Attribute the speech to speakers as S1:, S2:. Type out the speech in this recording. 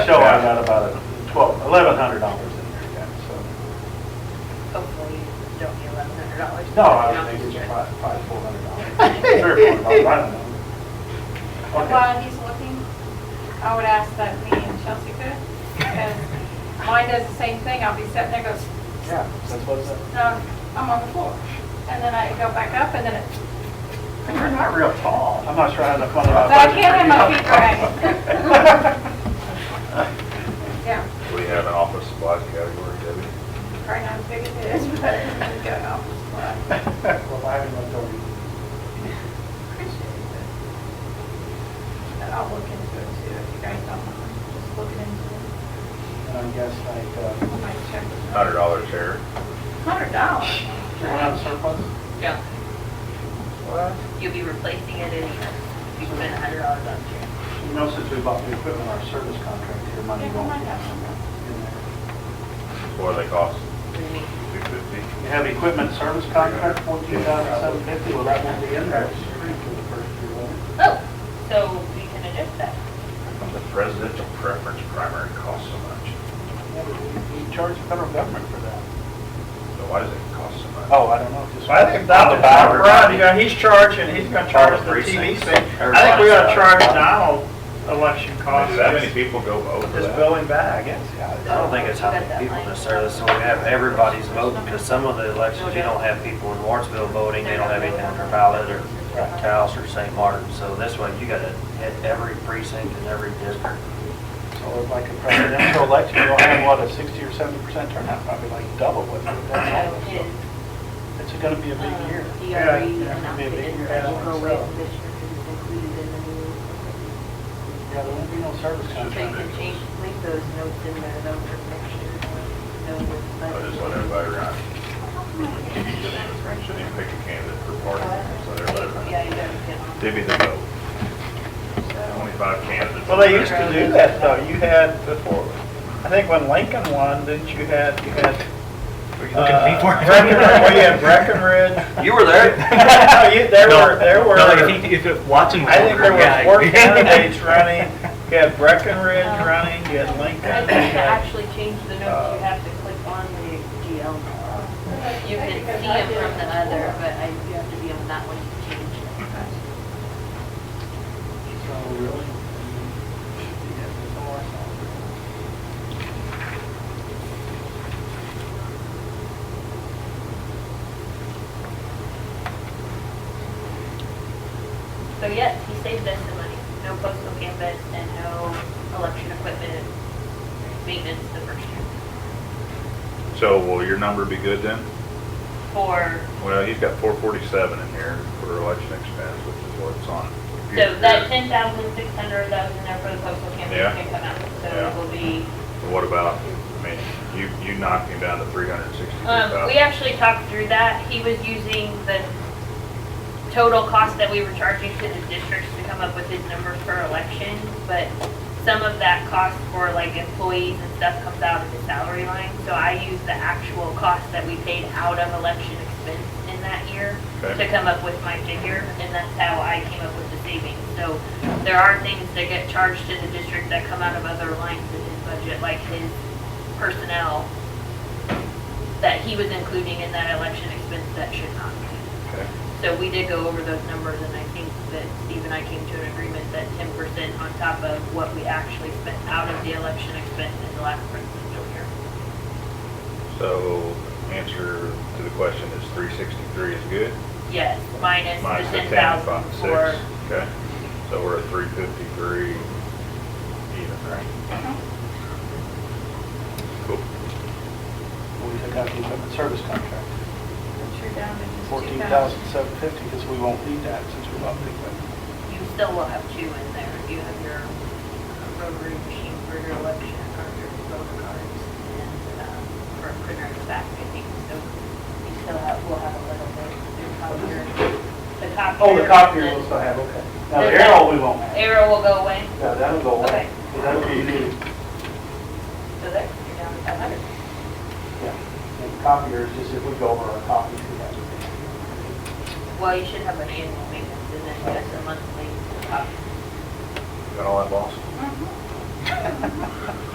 S1: So I got about a twelve, eleven hundred dollars in there, yeah, so.
S2: Hopefully you don't need eleven hundred dollars.
S1: No, I was thinking it's probably, probably four hundred dollars, three or four hundred, I don't know. Okay,
S3: While he's looking, I would ask that me and Chelsea could, because mine does the same thing. I'll be sitting there goes,
S1: yeah, that's what it's, at.
S3: no, I'm on the floor. And then I go back up and then it,
S1: you're not real tall, I'm not sure how to fund about
S3: but I
S1: budget.
S3: can't have my feet
S1: for you.
S3: dragging. Yeah,
S4: We have an office supplies category, Debbie.
S3: probably not as big as it is, but I'm going off the floor.
S1: Well, I haven't looked over.
S3: Appreciate it. But I'll look into it too, if you guys don't mind, just looking into it.
S1: And I guess like, uh,
S3: I might check.
S4: Hundred dollars here.
S3: Hundred dollars.
S1: you want out surplus?
S2: Yeah,
S1: Well,
S2: you'll be replacing it in, you spend a hundred dollars on it.
S1: you know, since we bought the equipment, our service contract, your money
S3: Yeah, we
S1: won't
S3: might
S1: be
S3: have some.
S1: in there.
S4: What do they cost?
S2: What do you mean?
S4: Two fifty?
S1: You have equipment service contract, fourteen thousand seven fifty, well, that won't be in there.
S2: Oh, so we can adjust that.
S4: The presidential preference primary costs so much.
S1: Yeah, but We we charge the federal government for that.
S4: So why does it cost so much?
S1: Oh, I don't know. just-
S5: So I think Donald, Brown, you know, he's charging, he's gonna charge the TV
S4: Precincts.
S5: thing. I think we ought to charge Donald election costs,
S4: Do that many
S5: just
S4: people go vote for
S5: just
S4: that?
S5: billing back.
S6: I don't think it's how many people necessarily, so we have everybody's voting, because some of the elections, you don't have people in Warrensville voting, they don't have anything on their ballot, or Taos or St. Martin, so this way, you gotta hit every precinct in every district.
S1: So like a presidential election, you'll have, what, a sixty or seventy percent turnout, probably like double what we've done.
S2: So his,
S1: It's gonna be a big
S2: um,
S1: year.
S2: DRE
S5: Yeah, yeah,
S2: announced
S1: maybe.
S2: it in the
S1: Yeah, I
S2: April
S1: think
S2: rate
S1: so.
S2: this year because it's included in the new.
S1: Yeah, there won't be no service
S2: So you
S1: contract.
S2: can change, leave those notes in there, though, for next year. know what's
S4: I just let
S2: budgeted.
S4: everybody run. Shouldn't even pick a candidate for party, just let everybody
S2: Yeah,
S4: run.
S2: you don't get.
S4: Divvy the vote. Twenty-five candidates.
S5: Well, they used to do that though, you had before, I think when Lincoln won, didn't you had, you had.
S6: Were you looking at me
S5: uh,
S6: for?
S5: Breckenridge- Well, you had Breckenridge.
S6: You were there.
S5: No, you, there were, there were.
S6: No, if he, if it- watching.
S5: I think there
S6: Yeah.
S5: were four candidates running, you had Breckenridge running, you had Lincoln,
S2: I
S5: you
S2: think to
S5: had,
S2: actually change the notes, you have to click on the GL. You can
S3: Because
S2: see
S3: I
S2: them
S3: did
S2: from the
S3: it
S2: other,
S3: before.
S2: but I, you have to be on that one to change it.
S1: So really, you have to know ourselves.
S2: So yes, he saved us the money. No postal campus and no election equipment maintenance the first year.
S4: So will your number be good then?
S2: For,
S4: Well, he's got four forty-seven in here for election expense, which is what it's on.
S2: so that ten thousand six hundred that was in there for the postal campus
S4: Yeah.
S2: can come out. So it
S4: Yeah.
S2: will be,
S4: What about, I mean, you, you knocked him down to three hundred and sixty-three
S2: um, we
S4: thousand.
S2: actually talked through that. He was using the total cost that we were charging to the districts to come up with his numbers for election, but some of that cost for like employees and stuff comes out of the salary line. So I use the actual cost that we paid out of election expense in that year
S4: Okay.
S2: to come up with my figure, and that's how I came up with the savings. So there are things that get charged to the district that come out of other lines in his budget, like his personnel that he was including in that election expense that should not be.
S4: Okay.
S2: So we did go over those numbers, and I think that Steve and I came to an agreement that ten percent on top of what we actually spent out of the election expense in the last presidential year.
S4: So answer to the question is three sixty-three is good?
S2: Yes, minus
S4: Minus
S2: the ten
S4: five,
S2: thousand
S4: six.
S2: for,
S4: Okay, so we're at three fifty-three even, right?
S2: Uh-huh.
S4: Cool.
S1: We took out the equipment service contract,
S3: But you're down to just 2,000.
S1: fourteen thousand seven fifty, because we won't need that since we bought the equipment.
S2: you still will have two in there. You have your uh, rotary machine for your election card, your voter cards, and um, for a printer in the back, I think. So you still have, we'll have a little bit of your copier. The copier.
S1: Oh, the copier
S2: and
S1: will still have, okay. Now, the
S2: There's
S1: arrow
S2: that-
S1: we won't have.
S2: Arrow will go away.
S1: Yeah, that'll go away.
S2: Okay.
S1: That'll be new.
S2: So there, you're down to 500.
S1: Yeah, and copiers, just if we go over our copies, we have to.
S2: Well, you should have an annual uh, maintenance and then just a monthly copy.
S4: Got all that, boss?